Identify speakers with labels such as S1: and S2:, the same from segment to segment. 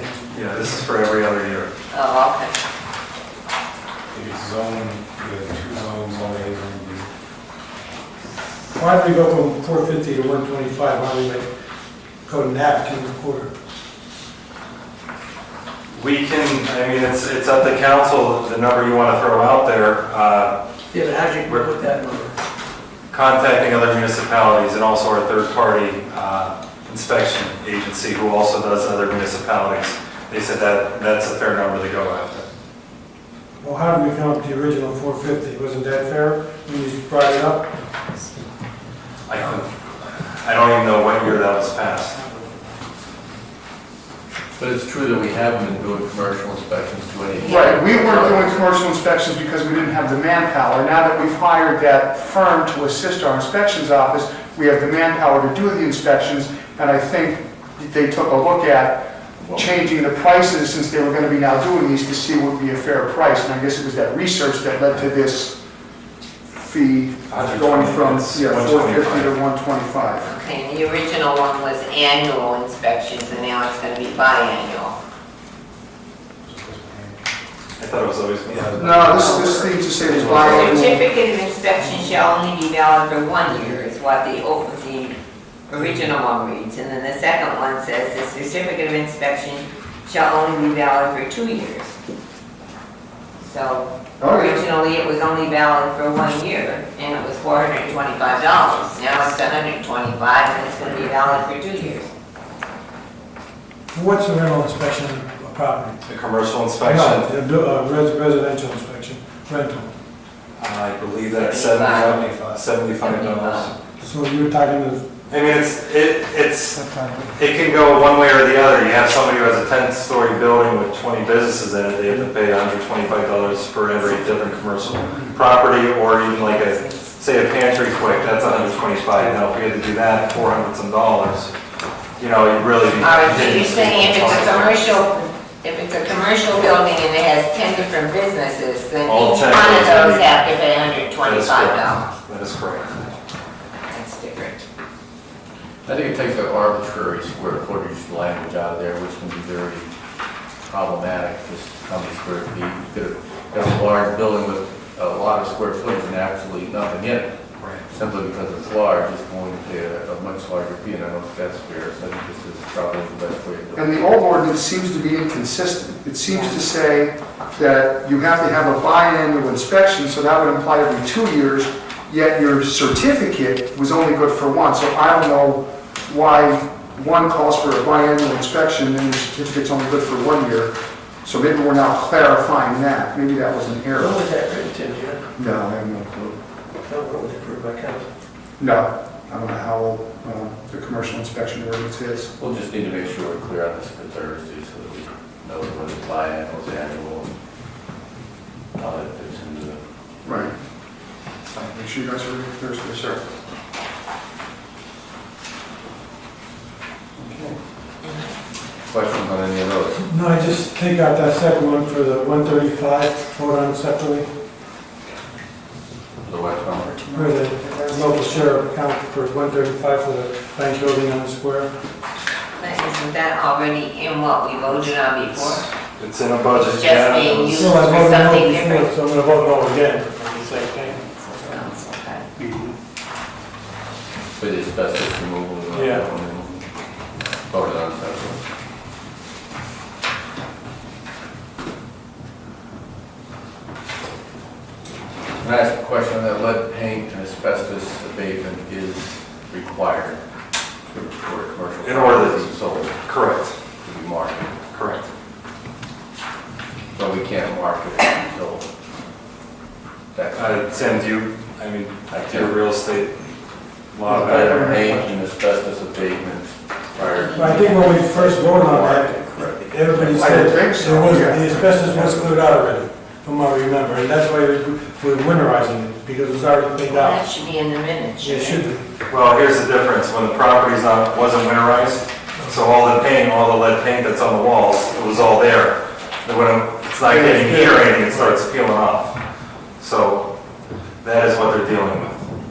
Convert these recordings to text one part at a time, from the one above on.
S1: this is for every other year.
S2: Oh, okay.
S3: It's zoned, the two zones only, and
S4: Why don't we go from four fifty to one twenty-five, why don't we like go nap to a quarter?
S1: We can, I mean, it's, it's up to council, the number you want to throw out there, uh,
S5: Yeah, but how'd you work with that number?
S1: contacting other municipalities and also our third-party uh, inspection agency who also does other municipalities. They said that, that's a fair number to go after.
S4: Well, how did we come up with the original four fifty, wasn't that fair when you brought it up?
S1: I don't, I don't even know what year that was passed.
S6: But it's true that we haven't been doing commercial inspections to any.
S7: Right, we weren't doing commercial inspections because we didn't have the manpower. Now that we've hired that firm to assist our inspections office, we have the manpower to do the inspections, and I think they took a look at changing the prices since they were gonna be now doing these to see what would be a fair price, and I guess it was that research that led to this fee going from, yeah, 450 to 125.
S2: Okay, and the original one was annual inspections, and now it's going to be biannual.
S1: I thought it was always.
S7: No, this, this thing to say is biannual.
S2: Certificate of inspection shall only be valid for one year, is what the, old- the original one reads. And then the second one says, the certificate of inspection shall only be valid for two years. So
S7: Okay.
S2: originally, it was only valid for one year, and it was four hundred and twenty-five dollars. Now it's seven hundred and twenty-five, and it's going to be valid for two years.
S4: What's a rental inspection of property?
S1: The commercial
S4: No,
S1: inspection,
S4: the do- uh, res- Residential inspection, rental.
S1: I believe that's seventy- seventy-five dollars.
S4: So you're talking to,
S1: I mean, it's, it, it's It can go one way or the other. You have somebody who has a ten-story building with twenty businesses in it, they have to pay hundred twenty-five dollars for every different commercial property, or even like a, say a pantry quick, that's $125. Now, if we had to do that, four hundred some dollars, you know, you'd really be.
S2: All right, so you're saying if it's a commercial,
S1: continuously-
S2: if it's a commercial building and it has ten different businesses, then
S1: All
S2: each
S1: 10
S2: one of
S1: goes in.
S2: those have to pay hundred
S1: That is
S2: twenty-five dollars.
S1: correct. That is correct.
S2: That's different.
S6: I think it takes the arbitrary square footage language out of there, which can be very problematic, just how many square feet. You could have got a large building with a lot of square footage and absolutely nothing in it,
S1: Right.
S6: simply because it's large, it's going to pay a a much larger fee, and I don't think that's fair, so I think this is probably the best way to do it.
S7: And the old ordinance seems to be inconsistent. It seems to say that you have to have a biannual inspection, so that would imply every two years, yet your certificate was only good for one. So I don't know why one calls for a biannual inspection and the certificate's only good for one year. So maybe we're now clarifying that. Maybe that was an
S5: When
S7: error.
S5: was that written, Tim, do you know?
S7: No, I have no clue.
S5: No, when was it approved by council?
S7: No, I don't know how old uh, the commercial inspection ordinance is.
S6: We'll just need to make sure we're clear on this for Thursday, so that we know what is biannual, is annual, and how that fits into the
S7: Right. Uh, Make sure you guys are Thursday. Sure.
S6: questions on any of those.
S4: no, I just take out that second one for the one thirty-five, vote on separately,
S6: The West Palm.
S4: for the local sheriff account for one thirty-five for the bank building on the square.
S2: But isn't that already in what we voted on before?
S1: It's in a budget.
S2: It's just
S1: yeah.
S2: being used.
S4: Well, I voted no
S2: Something
S4: before,
S2: different.
S4: So I'm gonna vote no again, on the same thing.
S2: Sounds okay.
S6: For the asbestos removal. and all that.
S4: Yeah.
S6: Voted on separately. Can I ask a question on that lead paint and asbestos abatement is required for for commercial.
S1: In order to-
S6: properties Sold to
S1: Correct,
S6: be marketed,
S1: correct.
S6: so we can't market it until that.
S1: Uh, Tim, do you, I mean,
S6: I
S1: do your real estate law better?
S6: Lead paint and asbestos abatement prior.
S4: But I think when we first voted on that,
S6: Correct.
S4: everybody
S7: I
S4: said
S7: don't think so,
S4: there was,
S7: yeah.
S4: the asbestos was cleared out already, from what I remember, and that's why we- we're winterizing it, because it's already cleaned
S2: That
S4: out.
S2: should be in the minutes,
S4: It should
S2: shouldn't it?
S4: be.
S1: Well, here's the difference, when the property's not, wasn't winterized, so all the paint, all the lead paint that's on the walls, it was all there. And when it's not getting heat or anything, it starts peeling off. So that is what they're dealing with.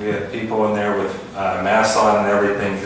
S1: We had people in there with uh, masks on and everything